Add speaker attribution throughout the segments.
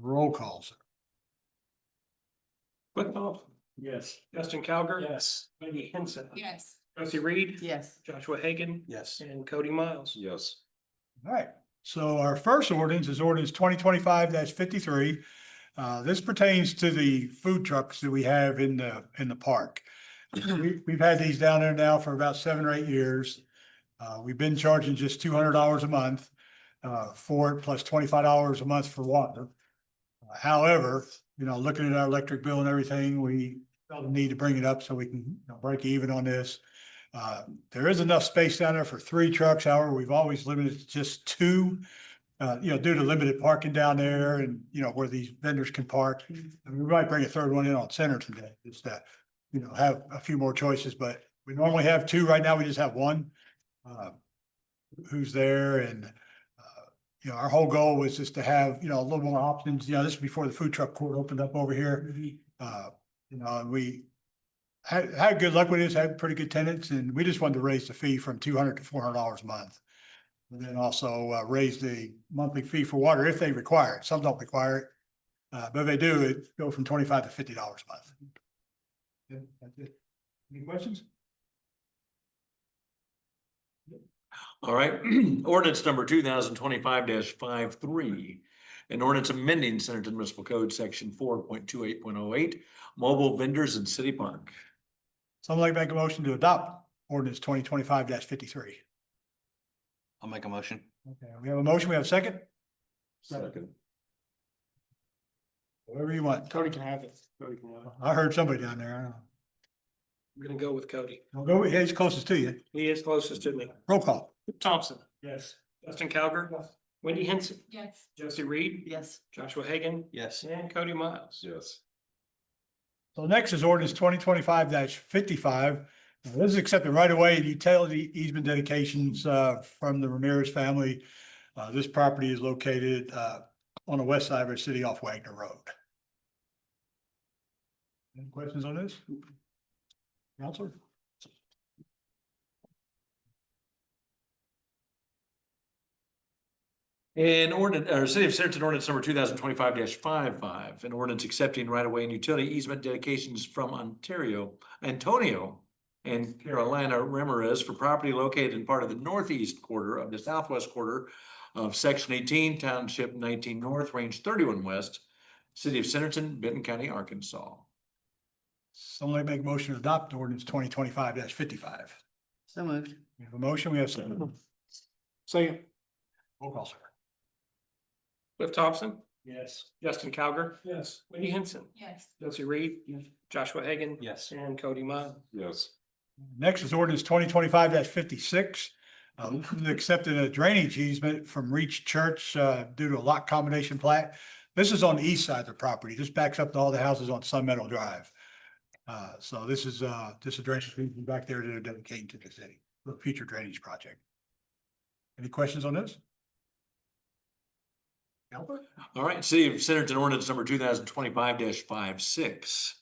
Speaker 1: Roll call, sir.
Speaker 2: Cliff Thompson. Yes. Justin Calgar.
Speaker 3: Yes.
Speaker 2: Maggie Henson.
Speaker 4: Yes.
Speaker 2: Josie Reed.
Speaker 4: Yes.
Speaker 2: Joshua Hagan.
Speaker 3: Yes.
Speaker 2: And Cody Miles.
Speaker 3: Yes.
Speaker 1: All right, so our first ordinance is ordinance twenty twenty-five fifty-three. Uh, this pertains to the food trucks that we have in the, in the park. We, we've had these down there now for about seven or eight years. Uh, we've been charging just two hundred dollars a month, uh, for it, plus twenty-five dollars a month for water. Uh, However, you know, looking at our electric bill and everything, we felt the need to bring it up so we can, you know, break even on this. Uh, there is enough space down there for three trucks, however, we've always limited to just two. Uh, you know, due to limited parking down there and, you know, where these vendors can park. And we might bring a third one in on center today, just to, you know, have a few more choices, but we normally have two, right now we just have one. uh, Who's there and, uh, you know, our whole goal was just to have, you know, a little more options, you know, this is before the food truck court opened up over here. Uh, you know, and we, had, had good luck with this, had pretty good tenants, and we just wanted to raise the fee from two hundred to four hundred dollars a month. And then also uh, raise the monthly fee for water if they require it. Some don't require it. Uh, but if they do, it go from twenty-five to fifty dollars a month. Yeah, that's it. Any questions?
Speaker 5: All right, ordinance number two thousand twenty-five 53 An ordinance amending Centerton Municipal Code, section four point two eight point oh eight, mobile vendors in city park.
Speaker 1: Someone like to make a motion to adopt ordinance twenty twenty-five fifty-three.
Speaker 3: I'll make a motion.
Speaker 1: Okay, we have a motion, we have a second,
Speaker 3: Second.
Speaker 1: whatever you want.
Speaker 2: Cody can have it. Cody can have it.
Speaker 1: I heard somebody down there. I don't know.
Speaker 2: I'm gonna go with Cody.
Speaker 1: Don't go, yeah, he's closest to you.
Speaker 2: He is closest to me.
Speaker 1: Roll call.
Speaker 2: Thompson. Yes. Justin Calgar. Wendy Henson.
Speaker 4: Yes.
Speaker 2: Josie Reed.
Speaker 4: Yes.
Speaker 2: Joshua Hagan.
Speaker 3: Yes.
Speaker 2: And Cody Miles.
Speaker 3: Yes.
Speaker 1: So next is ordinance twenty twenty-five fifty-five. Now, This is accepting right away and utility easement dedications uh, from the Ramirez family. Uh, This property is located uh, on the west side of our city off Wagner Road. Any questions on this? Counselor?
Speaker 5: And ordinance, or City of Centerton ordinance number two thousand twenty-five 55 an ordinance accepting right-of-way and utility easement dedications from Ontario, Antonio and Carolina Ramirez for property located in part of the northeast quarter of the southwest quarter of section eighteen, township nineteen north, range thirty-one west, City of Centerton, Benton County, Arkansas.
Speaker 1: Someone make a motion to adopt ordinance twenty twenty-five fifty-five.
Speaker 4: So moved.
Speaker 1: We have a motion, we have a second.
Speaker 2: Second.
Speaker 1: Roll call, sir.
Speaker 2: Cliff Thompson.
Speaker 3: Yes.
Speaker 2: Justin Calgar.
Speaker 3: Yes.
Speaker 2: Wendy Henson.
Speaker 4: Yes.
Speaker 2: Josie Reed. Joshua Hagan.
Speaker 3: Yes.
Speaker 2: And Cody Miles.
Speaker 3: Yes.
Speaker 1: Next is ordinance twenty twenty-five fifty-six. Uh, this is accepting a drainage easement from Reach Church, uh, due to a lot combination plat. This is on the east side of the property. This backs up to all the houses on Sun Meadow Drive. Uh, so this is, uh, this is drainage easement back there that are dedicated to the city, for a future drainage project. Any questions on this? Albert?
Speaker 5: All right, City of Centerton ordinance number two thousand twenty-five 56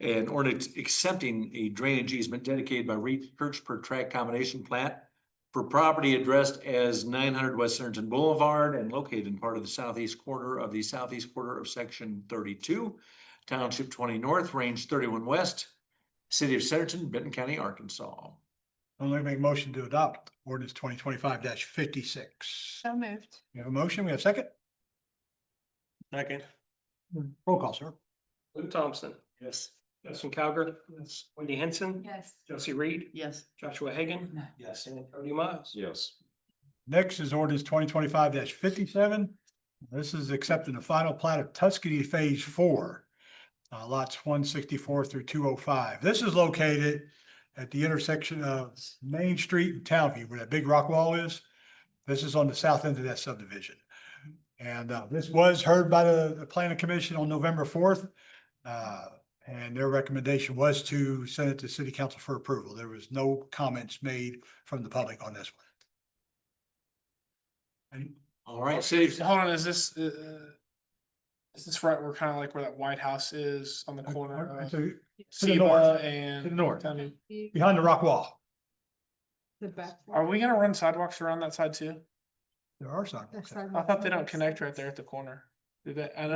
Speaker 5: An ordinance accepting a drainage easement dedicated by Reed Church per tract combination plat for property addressed as nine hundred West Centerton Boulevard and located in part of the southeast quarter of the southeast quarter of section thirty-two, township twenty north, range thirty-one west, City of Centerton, Benton County, Arkansas.
Speaker 1: I'm gonna make a motion to adopt ordinance twenty twenty-five fifty-six.
Speaker 4: So moved.
Speaker 1: We have a motion, we have a second?
Speaker 2: Second.
Speaker 1: Roll call, sir.
Speaker 2: Cliff Thompson. Yes. Justin Calgar. Yes. Wendy Henson.
Speaker 4: Yes.
Speaker 2: Josie Reed.
Speaker 4: Yes.
Speaker 2: Joshua Hagan.
Speaker 3: Yes.
Speaker 2: And Cody Miles.
Speaker 3: Yes.
Speaker 1: Next is ordinance twenty twenty-five fifty-seven. This is accepting the final plat of Tuscany Phase Four. uh, lots one sixty-four through two oh five. This is located at the intersection of Main Street and Townview, where that big rock wall is. This is on the south end of that subdivision. And, uh, this was heard by the, the planning commission on November fourth. Uh, and their recommendation was to send it to city council for approval. There was no comments made from the public on this one. And
Speaker 5: All right, City of
Speaker 6: Hold on, is this, uh, uh, is this right? We're kind of like where that White House is on the corner
Speaker 1: uh,
Speaker 6: of
Speaker 1: to- to the
Speaker 6: Seba
Speaker 1: north, to the
Speaker 6: and
Speaker 1: north,
Speaker 6: County.
Speaker 1: behind the rock wall,
Speaker 4: The back.
Speaker 6: Are we gonna run sidewalks around that side too?
Speaker 1: there are sidewalks.
Speaker 6: I thought they don't connect right there at the corner. Do they? I know